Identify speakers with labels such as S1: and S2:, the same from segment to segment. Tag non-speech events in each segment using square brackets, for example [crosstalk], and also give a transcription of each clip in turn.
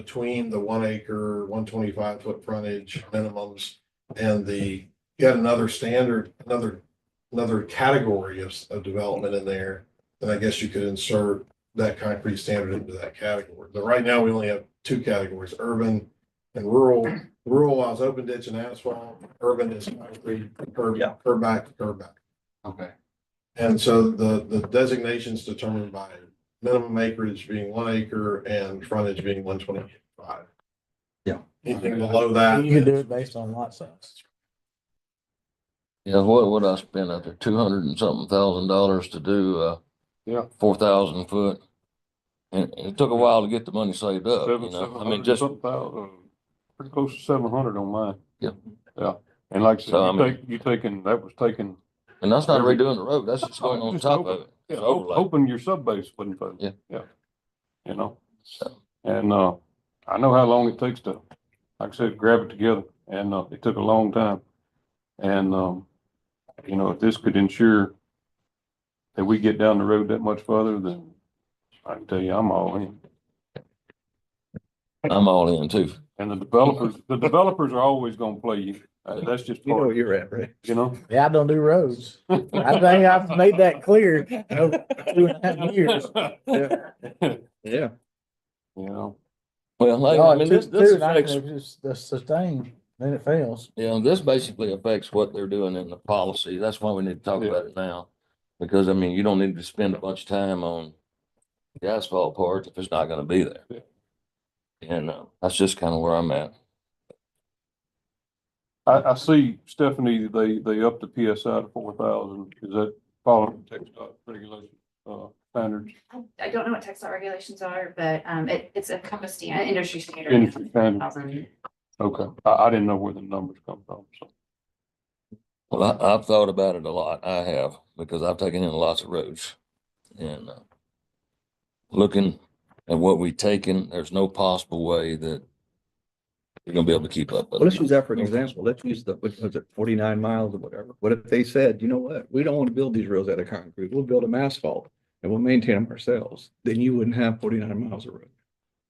S1: between the one acre, one twenty-five foot frontage minimums and the, yet another standard, another, another category of, of development in there, then I guess you could insert that concrete standard into that category. But right now, we only have two categories, urban and rural. Rural allows open ditch and asphalt, urban is concrete, curb,
S2: Yeah.
S1: curb back, to curb back.
S3: Okay,
S1: And so the, the designation's determined by minimum acreage being one acre and frontage being one twenty-five.
S2: Yeah.
S1: Anything below that.
S4: You can do it based on lot size.
S5: Yeah, what would I spend out there? Two hundred and something thousand dollars to do, uh,
S3: Yeah.
S5: four thousand foot. And and it took a while to get the money saved up, you
S3: seven,
S5: know,
S3: seven
S5: I mean,
S3: hundred,
S5: just,
S3: something thousand, pretty close to seven hundred on mine.
S5: Yeah.
S3: Yeah, and like I
S5: So, I
S3: said, you
S5: mean-
S3: take, you taking, that was taking,
S5: and that's not
S3: every-
S5: redoing the road, that's just going on
S3: Just
S5: top
S3: open-
S5: of it.
S3: yeah,
S5: It's
S3: o-
S5: overlay.
S3: open your sub base, wouldn't you?
S5: Yeah.
S3: Yeah, you know,
S5: So,
S3: and, uh, I know how long it takes to, like I said, grab it together, and, uh, it took a long time. And, um, you know, if this could ensure that we get down the road that much further, then I can tell you, I'm all in.
S5: I'm all in too.
S3: And the developers, the developers are always gonna play you. Uh, That's just
S2: You know
S3: part,
S2: where you're at, Ray.
S3: you know?
S4: Yeah, I don't do roads. I think I've made that clear over two and a half years.
S3: [laughs]
S2: Yeah.
S3: You know,
S5: Well, like,
S4: Oh,
S5: I
S4: it
S5: mean,
S4: took
S5: this, this
S4: two, and I
S5: affects,
S4: could've just- The sustain, then it fails.
S5: you know, this basically affects what they're doing in the policy. That's why we need to talk
S3: Yeah.
S5: about it now. Because I mean, you don't need to spend a bunch of time on the asphalt part if it's not gonna be there.
S3: Yeah.
S5: And, uh, that's just kind of where I'm at.
S3: I, I see Stephanie, they, they upped the PSI to four thousand. Is that following text regulation, uh, standards,
S6: I, I don't know what text dot regulations are, but, um, it, it's a compass stand, industry standard.
S3: industry standards?
S6: 1,000.
S3: Okay, I, I didn't know where the numbers come from, so.
S5: Well, I, I've thought about it a lot. I have, because I've taken in lots of roads. And uh, looking at what we've taken, there's no possible way that we're gonna be able to keep up. with
S2: Well, let's
S5: it.
S2: use that for an example. Let's use the, what was it, forty-nine miles or whatever. What if they said, you know what, we don't want to build these roads out of concrete, we'll build them asphalt and we'll maintain them ourselves, then you wouldn't have forty-nine miles of road.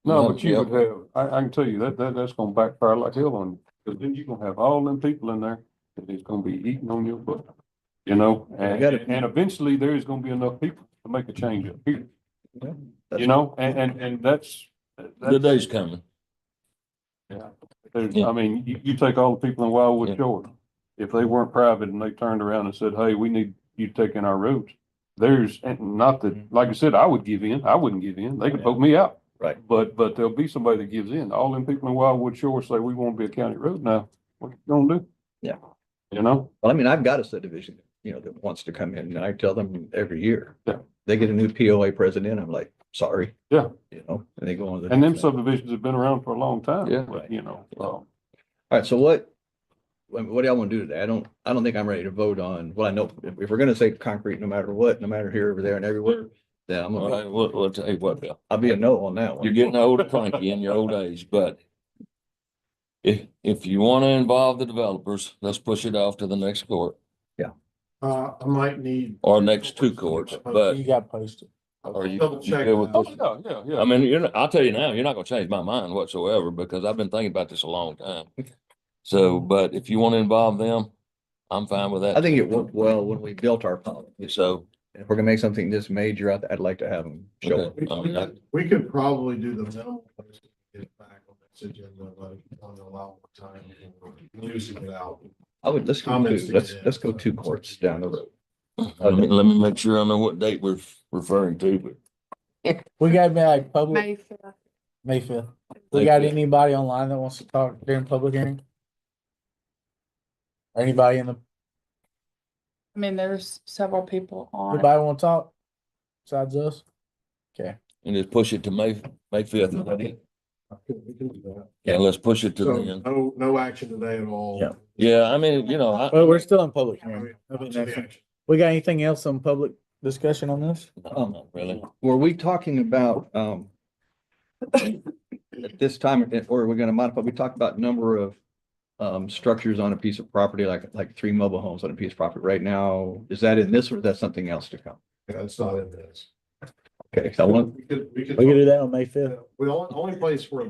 S3: No,
S5: Well,
S3: but you
S5: yeah.
S3: would have, I, I can tell you, that, that, that's gonna backfire like hell on you, because then you're gonna have all them people in there that is gonna be eating on your butt. You know, and,
S2: gotta-
S3: and eventually there is gonna be enough people to make a change up here.
S2: Yeah,
S3: You
S2: that's-
S3: know, and, and, and that's.
S5: The
S3: that's-
S5: day's coming.
S3: there's-
S5: yeah.
S3: I mean, you, you take all the people in
S5: Yeah.
S3: Wildwood Shores, if they weren't private and they turned around and said, hey, we need you taking our roads. There's, and not that, like I said, I would give in, I wouldn't give in, they could vote me out.
S2: Right.
S3: But, but there'll be somebody that gives in. All them people in Wildwood Shores say, we won't be a county road now. What you gonna do?
S2: Yeah.
S3: You know,
S2: Well, I mean, I've got a subdivision, you know, that wants to come in and I tell them every year.
S3: Yeah.
S2: They get a new POA president, I'm like, sorry.
S3: Yeah.
S2: You know, and they go on. to the
S3: and them
S2: next one.
S3: subdivisions have been around for a long time.
S5: Yeah.
S3: But, you know, um,
S2: All right, so what, what what do y'all want to do today? I don't, I don't think I'm ready to vote on, well, I know, if if we're gonna say concrete, no matter what, no matter here, over there and everywhere, then I'm
S5: All right,
S2: gonna,
S5: we'll, we'll tell you what, Bill.
S2: I'll be a no on that
S5: You're
S2: one.
S5: getting old and cranky in your old age, but if, if you want to involve the developers, let's push it off to the next court
S1: Uh, I might need.
S5: or next two courts, but
S4: You got posted.
S5: are you,
S1: Double
S5: you
S1: check.
S5: good with
S3: oh,
S5: this?
S3: yeah, yeah, yeah.
S5: I mean, you're, not- I'll tell you now, you're not gonna change my mind whatsoever because I've been thinking about this a long time. So,
S3: Mm-hmm.
S5: but if you want to involve them, I'm fine with that.
S2: I think it worked well when we built our policy.
S5: So,
S2: If we're gonna make something this major, I'd, I'd like to have them show up.
S5: okay, I
S1: um,
S5: mean, I-
S1: We could probably do the minimum. Get back on this agenda, but only allow more time. Losing it out.
S2: I would, let's go
S1: Comments
S2: two,
S1: to
S2: let's,
S1: get in.
S2: let's go two courts down the road.
S5: let me, let me make sure I know what date we're referring to, but
S4: We got to be like public,
S6: May fifth.
S4: May fifth. We got
S5: Thank you.
S4: anybody online that wants to talk during public hearing? Or Anybody in the,
S7: I mean, there's several people on.
S4: anybody want to talk besides us?
S5: and just push it to May, May fifth.
S1: We can do that.
S5: Yeah, let's push it to
S1: So
S5: then.
S1: no, no action today at all.
S4: Yeah.
S5: Yeah, I mean, you know, I,
S4: Well, we're still in public
S1: I
S4: hearing.
S1: mean, to the action.
S4: We got anything else on public discussion on this?
S5: no, not really.
S2: Were we talking about, um, at this time, eh, or are we gonna modify, we talked about number of um, structures on a piece of property, like, like three mobile homes on a piece of property right now. Is that in this or is that something else to come?
S1: Yeah, it's not in this.
S2: Okay, so I want,
S1: We could, we could.
S4: We can do that on May fifth.
S1: We only, only place where